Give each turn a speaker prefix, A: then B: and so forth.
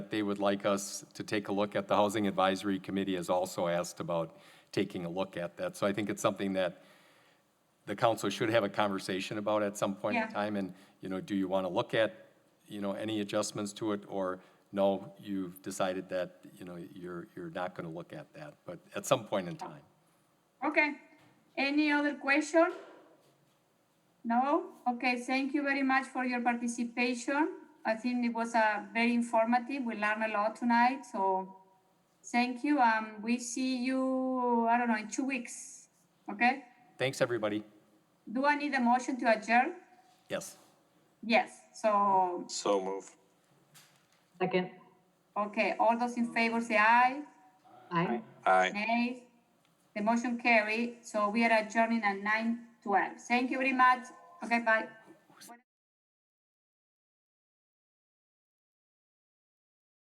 A: they would like us to take a look at. The Housing Advisory Committee has also asked about taking a look at that. So I think it's something that the council should have a conversation about at some point in
B: Yeah.
A: time. And, you know, do you want to look at, you know, any adjustments to it? Or no, you've decided that, you know, you're, you're not going to look at that, but at some point in time.
B: Okay. Any other question? No? Okay, thank you very much for your participation. I think it was uh, very informative. We learned a lot tonight, so thank you. Um, we see you, I don't know, in two weeks. Okay?
A: Thanks, everybody.
B: Do I need a motion to adjourn?
A: Yes.
B: Yes. So,
C: So move.
D: Second.
B: okay, all those in favor say aye.
D: Aye.
C: Aye.
B: Nay. The motion carry. So we are adjourning at nine twelve. Thank you very much. Okay, bye.